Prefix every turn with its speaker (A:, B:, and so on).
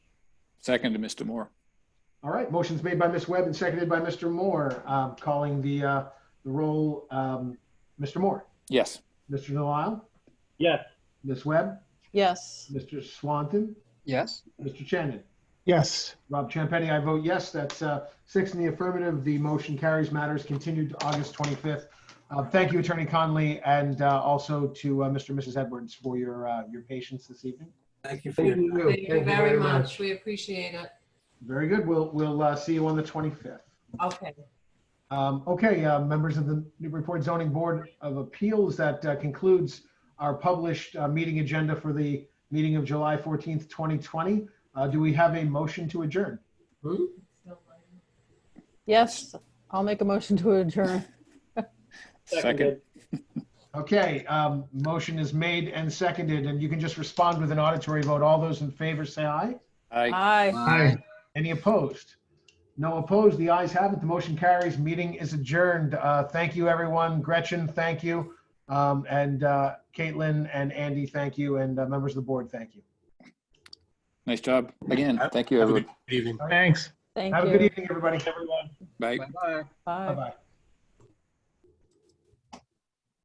A: Second to Mr. Moore.
B: All right, motion's made by Ms. Webb and seconded by Mr. Moore. Um, calling the, uh, the roll, um, Mr. Moore,
A: Yes.
B: Mr. Delisle,
C: Yes.
B: Ms. Webb,
D: Yes.
B: Mr. Swanton,
E: Yes.
B: Mr. Shannon.
F: yes,
B: Rob Champetti, I vote yes. That's uh, six in the affirmative. The motion carries. Matters continued to August 25th. Uh, Thank you, Attorney Conley, and uh, also to uh, Mr. and Mrs. Edwards for your, uh, your patience this evening.
G: Thank you for your
C: Thank you.
D: Thank you very much. We appreciate it.
B: Very good. We'll, we'll uh, see you on the 25th.
D: Okay.
B: Um, okay, uh, members of the Newburyport Zoning Board of Appeals, that uh, concludes our published uh, meeting agenda for the meeting of July 14th, 2020. Uh, do we have a motion to adjourn?
D: Yes, I'll make a motion to adjourn.
A: Second.
B: Okay, um, motion is made and seconded, and you can just respond with an auditory vote. All those in favor say aye.
A: Aye.
D: Aye.
F: aye.
B: Any opposed? No opposed. The ayes have it. The motion carries. Meeting is adjourned. Uh, thank you, everyone. Gretchen, thank you. Um, and uh, Caitlin and Andy, thank you. And uh, members of the board, thank you.
A: Nice job. Again, thank you,
G: Have a good
A: everyone.
G: evening.
F: Thanks.
D: Thank
B: Have a good
D: you.
B: evening, everybody.
C: Everyone.
A: Bye.
E: Bye-bye.
D: Bye.
B: Bye-bye.